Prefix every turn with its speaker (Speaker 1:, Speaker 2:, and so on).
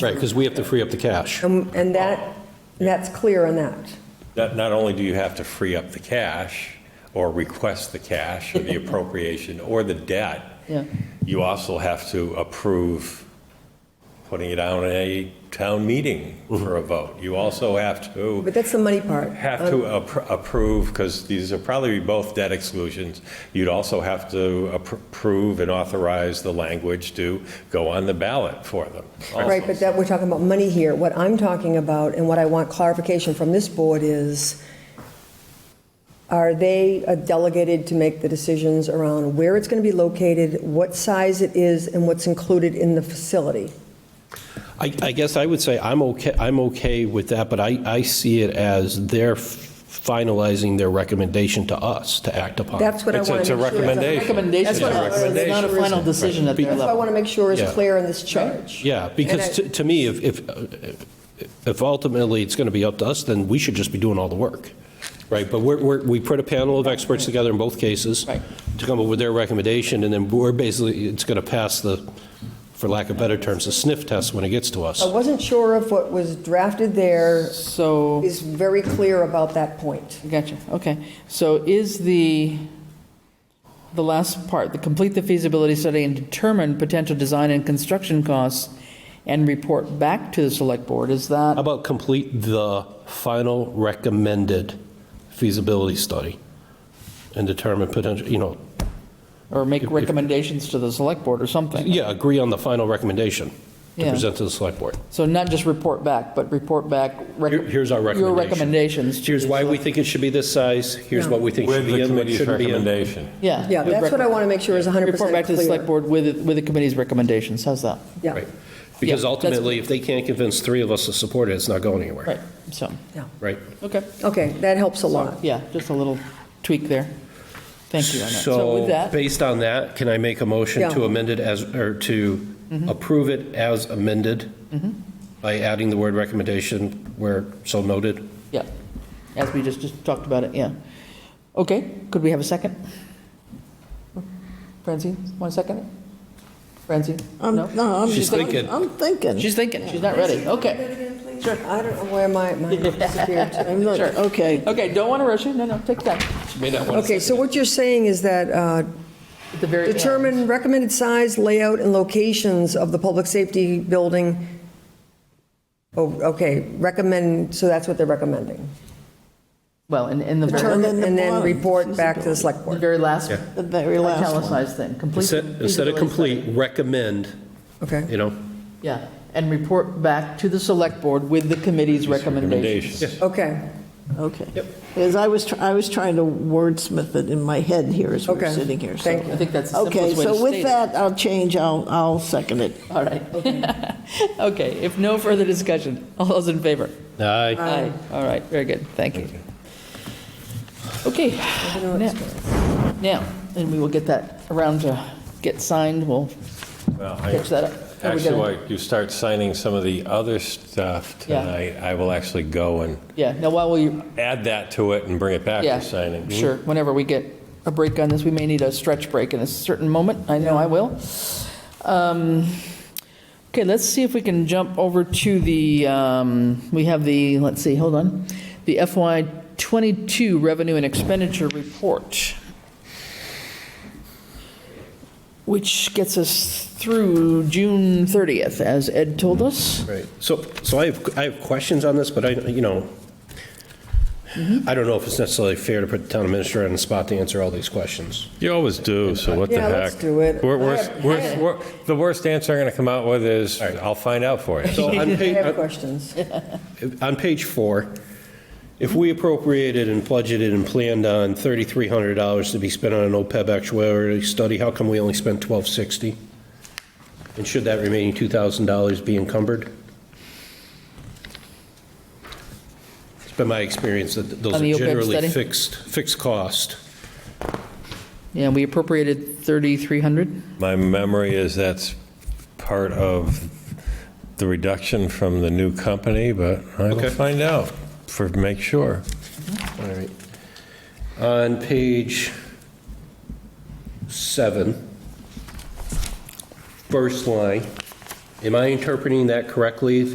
Speaker 1: Right, because we have to free up the cash.
Speaker 2: Um, And that, that's clear on that.
Speaker 3: Not, not only do you have to free up the cash or request the cash or the appropriation or the debt,
Speaker 4: Yeah.
Speaker 3: you also have to approve putting it out in a town meeting for a vote. You also have to
Speaker 2: But that's the money part. Uh,
Speaker 3: have to appro- approve, because these are probably both debt exclusions, you'd also have to appro- approve and authorize the language to go on the ballot for them.
Speaker 2: Right, but that, we're talking about money here. What I'm talking about, and what I want clarification from this board is, are they uh, delegated to make the decisions around where it's going to be located, what size it is, and what's included in the facility?
Speaker 1: I, I guess I would say I'm okay, I'm okay with that, but I, I see it as they're finalizing their recommendation to us to act upon.
Speaker 2: That's what I
Speaker 3: It's a-
Speaker 2: want
Speaker 3: it's
Speaker 2: to
Speaker 3: a
Speaker 2: make sure.
Speaker 3: recommendation.
Speaker 4: Recommendation,
Speaker 2: That's what I-
Speaker 4: it's not a final decision at their
Speaker 2: That's what I
Speaker 4: level.
Speaker 2: want to make sure is
Speaker 1: Yeah.
Speaker 2: clear in this charge.
Speaker 1: Yeah, because
Speaker 2: And I-
Speaker 1: to, to me, if, if, if ultimately it's going to be up to us, then we should just be doing all the work, right? But we're, we're, we put a panel of experts together in both cases
Speaker 4: Right.
Speaker 1: to come up with their recommendation, and then we're basically, it's going to pass the, for lack of better terms, the sniff test when it gets to us.
Speaker 2: I wasn't sure if what was drafted there
Speaker 4: So,
Speaker 2: is very clear about that point.
Speaker 4: gotcha, okay. So is the, the last part, the complete the feasibility study and determine potential design and construction costs and report back to the select board, is that?
Speaker 1: How about complete the final recommended feasibility study and determine potential, you know,
Speaker 4: Or make recommendations to the select board or something.
Speaker 1: yeah, agree on the final recommendation to
Speaker 4: Yeah.
Speaker 1: present to the select board.
Speaker 4: So not just report back, but report back. rec-
Speaker 1: Here- Here's our recommendation.
Speaker 4: Your recommendations. to
Speaker 1: Here's
Speaker 4: the
Speaker 1: why we
Speaker 4: select-
Speaker 1: think it should be this size, here's what we think should
Speaker 3: With
Speaker 1: be
Speaker 3: the
Speaker 1: in, what
Speaker 3: committee's
Speaker 1: shouldn't be in.
Speaker 3: recommendation.
Speaker 4: Yeah.
Speaker 2: Yeah,
Speaker 4: with
Speaker 2: that's what I
Speaker 4: rec-
Speaker 2: want to make sure is 100% clear.
Speaker 4: Report back to the select board with, with the committee's recommendations, how's that?
Speaker 2: Yeah,
Speaker 1: Right. Because
Speaker 4: Yeah, that's-
Speaker 1: ultimately, if they can't convince three of us to support it, it's not going anywhere,
Speaker 4: Right, so,
Speaker 2: yeah.
Speaker 1: right?
Speaker 4: okay.
Speaker 2: Okay, that helps a lot.
Speaker 4: Yeah, just a little tweak there. Thank you on that. So with
Speaker 1: So,
Speaker 4: that,
Speaker 1: based on that, can I make a motion to
Speaker 2: Yeah.
Speaker 1: amend it as, or to
Speaker 4: Mm-hmm.
Speaker 1: approve it as amended by adding the word recommendation where so noted?
Speaker 4: yeah, as we just, just talked about it, yeah. Okay, could we have a second? Francine, want to second it? Francine?
Speaker 5: I'm,
Speaker 4: No?
Speaker 5: no, I'm
Speaker 1: She's
Speaker 5: just,
Speaker 1: thinking.
Speaker 5: I'm I'm thinking.
Speaker 4: She's thinking, she's not ready, okay.
Speaker 2: I don't know where my, my disappeared to.
Speaker 5: I'm not-
Speaker 4: Sure.
Speaker 5: Okay,
Speaker 4: Okay, don't want to rush you, no, no, take your time.
Speaker 1: May not want
Speaker 2: Okay, so what you're saying is that uh,
Speaker 4: At the very end.
Speaker 2: determine recommended size, layout, and locations of the public safety building. Oh, okay, recommend, so that's what they're recommending.
Speaker 4: Well, in, in the very,
Speaker 5: And then
Speaker 2: Determine
Speaker 5: the
Speaker 2: and then
Speaker 5: bond,
Speaker 2: report back to the select
Speaker 4: the
Speaker 2: board.
Speaker 4: very last
Speaker 5: the very last one.
Speaker 4: italicized thing, complete.
Speaker 1: Instead instead of
Speaker 4: feasibility
Speaker 1: complete,
Speaker 4: study.
Speaker 1: recommend,
Speaker 2: Okay,
Speaker 1: you know?
Speaker 4: Yeah, and report back to the select board with the committee's recommendations.
Speaker 3: Recommendations.
Speaker 2: okay,
Speaker 5: Okay. Because I was, tr- I was trying to wordsmith it in my head here as we we're
Speaker 2: Okay.
Speaker 5: sitting here, so.
Speaker 2: Thank you.
Speaker 4: I think that's the
Speaker 5: Okay,
Speaker 4: simplest way to
Speaker 5: so with
Speaker 4: state it.
Speaker 5: that, I'll change, I'll, I'll second it.
Speaker 4: All right. Okay, if no further discussion, all those in favor?
Speaker 1: Aye.
Speaker 4: Aye. All right, very good, thank you. Okay. now- Now, and we will get that around to get signed, we'll
Speaker 3: Well,
Speaker 4: catch that
Speaker 3: I-
Speaker 4: up. Are we
Speaker 3: Actually,
Speaker 4: gonna-
Speaker 3: while you start signing some of the other stuff
Speaker 4: Yeah.
Speaker 3: tonight, I will actually go and
Speaker 4: Yeah, now while we,
Speaker 3: add that to it and bring it back
Speaker 4: yeah.
Speaker 3: for signing.
Speaker 4: Sure, whenever we get a break on this, we may need a stretch break in a certain moment, I know I will. Um, Okay, let's see if we can jump over to the, um, we have the, let's see, hold on, the FY '22 Revenue and Expenditure Report, which gets us through June 30th, as Ed told us.
Speaker 1: Right, so, so I have, I have questions on this, but I, you know, I don't know if it's necessarily fair to put the town administrator on the spot to answer all these questions.
Speaker 3: You always do, so what the
Speaker 2: Yeah,
Speaker 3: heck?
Speaker 2: let's do it.
Speaker 3: We're-
Speaker 2: I
Speaker 3: we're-
Speaker 2: have-
Speaker 3: we're-
Speaker 2: I have-
Speaker 3: we're- The worst answer I'm going to come out with is, I'll find out for you.
Speaker 1: So on uh,
Speaker 2: I
Speaker 1: page,
Speaker 2: have questions.
Speaker 1: on page four, if we appropriated and budgeted and planned on $3,300 to be spent on an OPEB actuary study, how come we only spent 1,260? And should that remaining $2,000 be encumbered? It's been my experience that those
Speaker 4: On the
Speaker 1: are
Speaker 4: OPEB
Speaker 1: generally
Speaker 4: study?
Speaker 1: fixed, fixed cost.
Speaker 4: Yeah, we appropriated 3,300.
Speaker 3: My memory is that's part of the reduction from the new company, but I
Speaker 1: Okay.
Speaker 3: will find out for, make sure.
Speaker 1: All right. On page seven, first line, Am I interpreting that correctly,